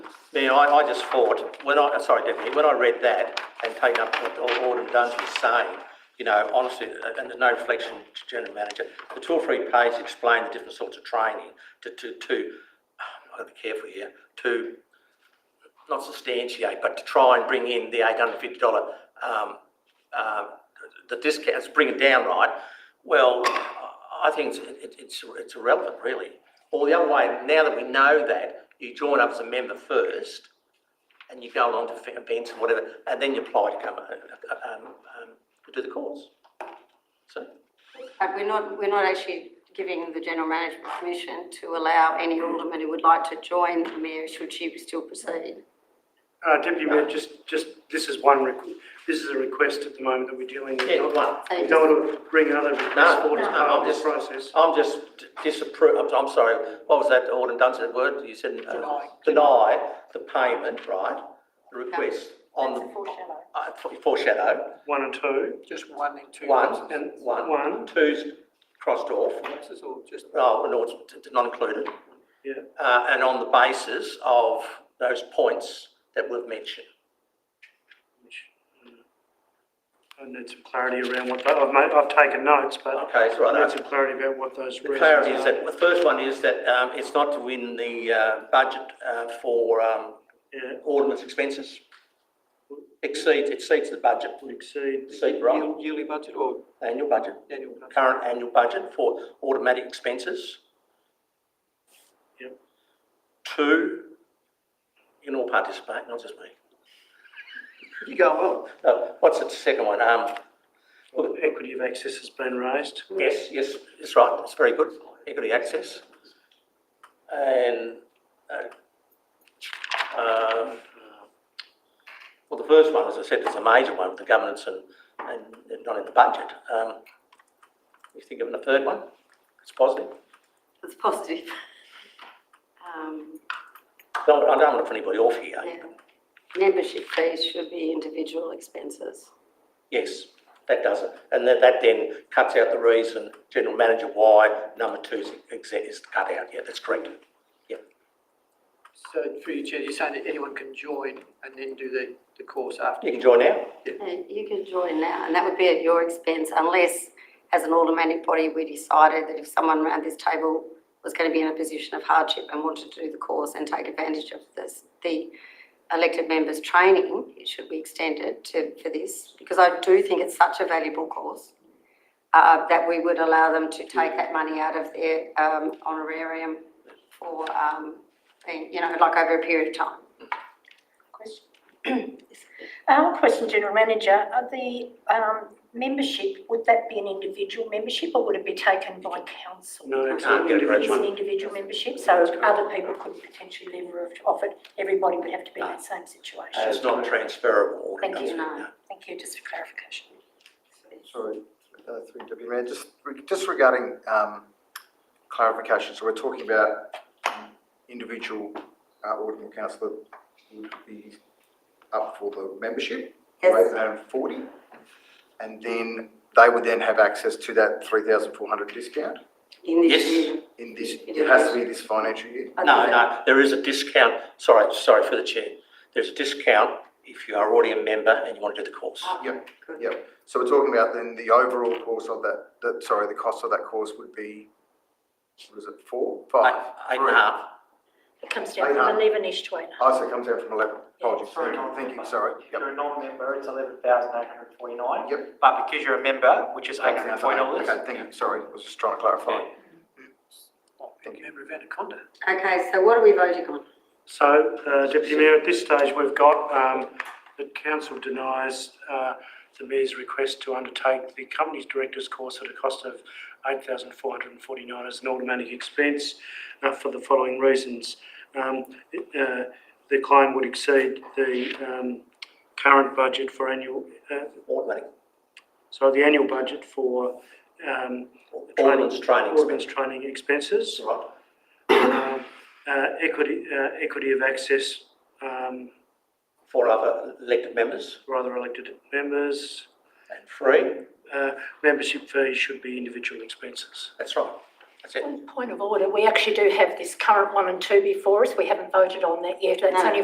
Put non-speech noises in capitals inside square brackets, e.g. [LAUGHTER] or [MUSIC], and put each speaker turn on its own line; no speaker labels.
Mayor, I, I just thought, when I, uh, sorry, Deputy, when I read that and taken up what Al- Alderman Duns was saying, you know, honestly, uh, and no reflection to General Manager, the two or three pages explain the different sorts of training to, to, to, I've got to be careful here, to not substantiate, but to try and bring in the eight hundred and fifty dollar, um, um, the discounts, bring it down, right? Well, I I think it's, it- it's, it's irrelevant, really. Or the other way, now that we know that, you join up as a member first, and you go along to fa- events and whatever, and then you apply to come, uh, uh, um, um, to do the course. So,
But Uh, we're not, we're not actually giving the General Management Commission to allow any alderman who would like to join the mayor should she still proceed.
Uh, Deputy Mayor, just, just, this is one, requ- this is a request at the moment that we're dealing with.
yeah, one.
We don't want to bring another
No,
request forward as
no,
part of
I'm
this
just,
process.
I'm just disapprove, I'm, I'm sorry, what was that, Alderman Dunstan word, you said? uh,
Deny.
Deny the payment, right, the request on
That's
the,
a foreshadow.
uh, foreshadow,
One and two,
Just one and two.
one,
and
one,
one,
two's crossed off,
Lapses or just,
oh, no, it's it's not included.
Yeah.
Uh, and on the basis of those points that we've mentioned.
uh, I need some clarity around what, tho- I've made, I've taken notes, but
Okay, so
I
I-
need some clarity about what those
The clarity
reasons
is
are.
that, the first one is that, um, it's not to win the, uh, budget, uh, for, um,
Yeah,
Alderman's expenses. Exceeds, exceeds the budget,
would exceed,
exceed, right?
year- yearly budget or
annual budget,
annual? budget?
current annual budget for automatic expenses.
Yep.
Two, you can all participate, not just me.
You go, well,
Uh, what's the second one? Um,
well, equity of access has been raised.
yes, yes, that's right, that's very good, equity access. And, uh, um, well, the first one, as I said, is a major one, the governance and, and not in the budget. Um, you think of the third one, it's positive.
That's positive. Um,
Don't- I don't want to put anybody off here.
yeah. Membership fees should be individual expenses.
Yes, that does it. And that, that then cuts out the reason, general manager, why number two is, exe- is cut out. Yeah, that's correct.
so through your chair, you're saying that anyone can join and then do the, the course after?
You can join now.
Uh, You can join now, and that would be at your expense unless, as an automatic body, we decided that if someone around this table was going to be in a position of hardship and wanted to do the course and take advantage of this, the elected members' training, it should be extended to, for this, because I do think it's such a valuable course, uh, that we would allow them to take that money out of their, um, honorarium for, um, being, you know, like over a period of time.
Question. [CLEARS THROAT] Um, question, General Manager, are the, um, membership, would that be an individual membership or would it be taken by council?
No, it's
Can't get it
It's an
individual.
individual membership, so other people could potentially lever off it, everybody would have to be in that same
Uh,
situation.
It's not transferable.
Thank you,
no.
Thank you, just for clarification.
Sorry, uh, through Deputy Mayor, just re- just regarding um, clarification, so we're talking about um, individual uh, ordinary councillor would be up for the membership,
Yes.
rate and forty, and then they would then have access to that three thousand four hundred discount
In this
Yes.
year.
in this, it has to be this financial year.
I
No,
think that-
no, there is a discount. Sorry, sorry for the chair. There's a discount if you are already a member and you want to do the course.
Oh,
Yep,
good.
Yep, so we're talking about then the overall course of that, that, sorry, the cost of that course would be, what is it, four, five?
Eight- Eight and a half.
It comes down from eleven-ish to eight.
Oh, so it comes out from eleven, apologies,
Sorry,
I'm thinking, sorry,
If
yep,
you're a non-member, it's eleven thousand eight hundred forty-nine.
yep.
But because you're a member, which is eight oh
Okay,
hundred forty dollars.
Okay, thank you, sorry, I was just trying to clarify. Thank you.
Member of Anaconda.
Okay, so what are we voting on?
So, uh, Deputy Mayor, at this stage, we've got um, that council denies uh, the mayor's request to undertake the company's director's course at a cost of 8449 as an automatic expense uh, for the following reasons. Um, it, uh, The claim would exceed the um, current budget for annual, uh,
Automatic.
so the annual budget for um,
Alderman's training
Ordnance
expense.
training expenses
Right.
um, uh, equity, uh, equity of access um,
For other elected members
for other elected members.
and free.
Uh, Membership fees should be individual expenses.
That's right. That's it.
One point of order, we actually do have this current one and two before us, we haven't voted on that yet, it's
No.
only